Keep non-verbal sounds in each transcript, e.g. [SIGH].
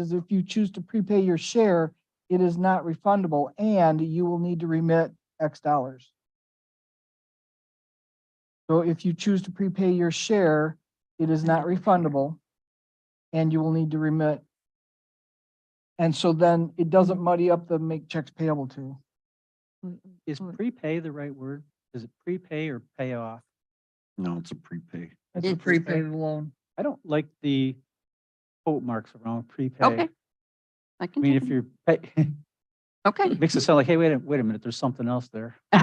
is if you choose to prepay your share, it is not refundable and you will need to remit X dollars. So if you choose to prepay your share, it is not refundable and you will need to remit. And so then it doesn't muddy up the make checks payable to. Is Mm. prepay the right word? Is it prepay or pay off? No, it's a prepay. That's a It's prepay prepay. loan. I don't like the quote marks around prepay. Okay. I I can, mean, do if you're, pay- [LAUGHS] that. okay. makes it sound like, hey, wait a, wait a minute, there's something else there. [LAUGHS]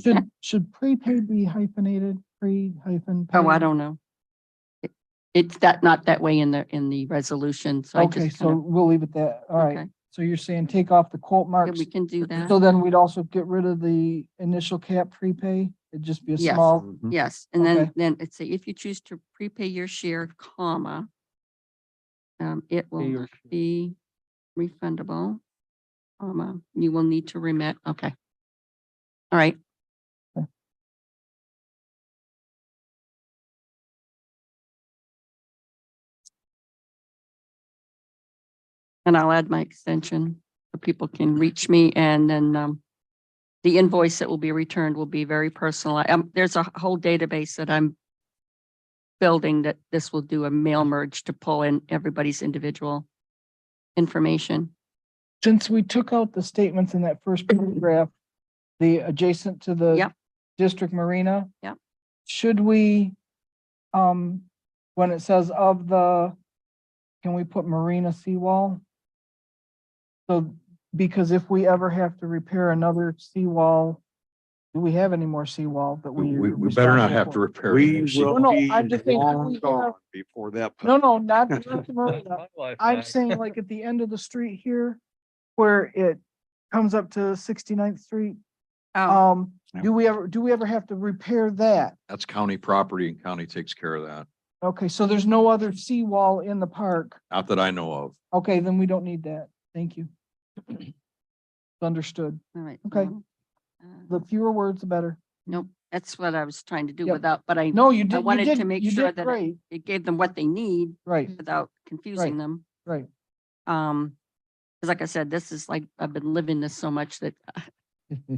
Should, should prepaid be hyphenated, pre hyphen? Oh, I paid? don't know. It- It's that, not that way in the, in the resolution, so I Okay, just so kind of, we'll leave it that. All right. okay, So you're saying take off the quote yeah, marks we can do So that. then we'd also get rid of the initial cap prepay? It'd just be a Yes. small, Mhm. Yes, and then, Okay. then it's say if you choose to prepay your share, comma, um, it will Pay your not share. be refundable, comma, you will need to remit, okay. All right, and I'll add my extension so people can reach me and then um the invoice that will be returned will be very personalized. Um, there's a whole database that I'm building that this will do a mail merge to pull in everybody's individual information. since we took out the statements in that [CLEARS THROAT] first paragraph, the adjacent to the Yep. district marina. Yep. Should we, um, when it says of the, can we put marina seawall? So, because if we ever have to repair another seawall, do we have any more seawall that we? We, are we better not responsible have for? to repair. We anything. No, will no, be I'm just saying, if long we gone have- before that. No, [LAUGHS] no, not, not the marina. I'm saying like at the end of the street here, where it comes up to 69th Street. Oh, Um, Yeah. do we ever, do we ever have to repair that? That's county property and county takes care of that. Okay, so there's no other seawall in the park. Not that I know of. Okay, then we don't need that. Thank you. Understood. all right. okay. well, uh, The fewer words, the better. Nope, that's what I was trying to do Yep. without, but I, No, you did, you wanted to did, make you sure did that it- great. it gave them what they need Right, without confusing them. Mm-hmm. right. Um, 'cause like I said, this is like, I've been living this so much [LAUGHS] that [LAUGHS] uh,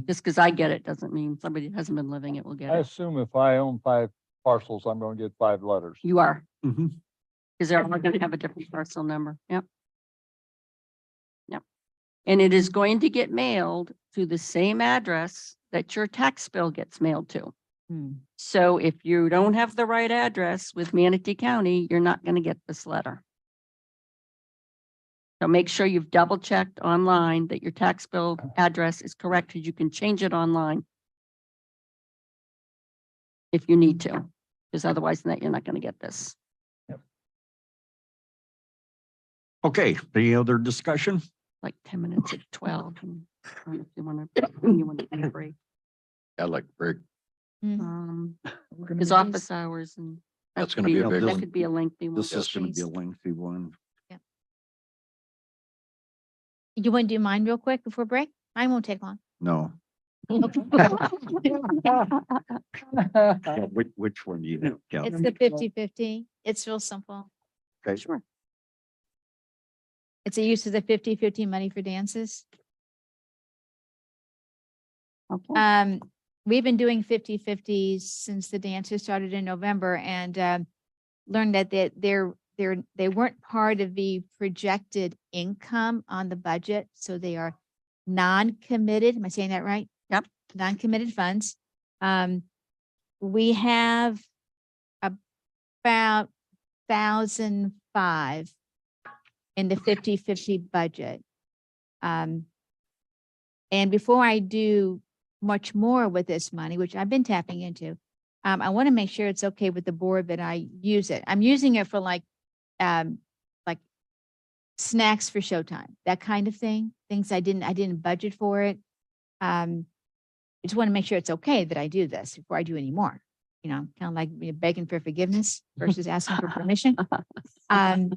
just because I get it doesn't mean somebody that hasn't been living it will get I it. assume if I own five parcels, I'm gonna get five letters. You are, Mhm. because they're all going to have a different parcel number. Yep. Yep. And it is going to get mailed to the same address that your tax bill gets mailed to. Mm. So if you don't have the right address with Manatee County, you're not going to get this letter. So make sure you've double checked online that your tax bill address is correct because you can change it online. If you need to, because otherwise than that you're not going to get this. Okay, any other discussion? Like ten minutes at twelve. and I don't know If you want to, you want to break, I like, break. um, We're gonna his do- office hours and. that That's could gonna be a big That one. could be a lengthy one. This is going to be a lengthy one. You want to do mine real quick before break? Mine won't take long. No. All [LAUGHS] [LAUGHS] Uh, Yeah, Which, which one do you have? Cal? It's number the 12. 50 50. It's real simple. Okay. Sure. It's a use of the 50 50 money for dances. Okay. Um, we've been doing 50 50s since the dances started in November and um, learned that they, they're, they're, they weren't part of the projected income on the budget. So they are non-committed. Am I saying that right? Yep. Non-committed funds. Um, we have about thousand five in the 50 50 budget. Um, and before I do much more with this money, which I've been tapping into. Um, I want to make sure it's okay with the board that I use it. I'm using it for like, um, like snacks for showtime, that kind of thing, things I didn't, I didn't budget for it. Um, I just want to make sure it's okay that I do this before I do any more. You know, kind of like you know, begging for forgiveness versus asking for permission. Um,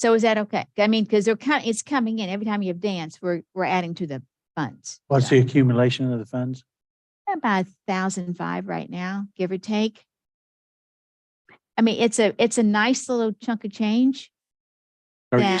so is that okay? I mean, because they're kind, it's coming in. Every time you have dance, we're, we're adding to the funds. What's so the accumulation of the funds? about thousand five right now, give or take. I mean, it's a, it's a nice little chunk of change. Are you that-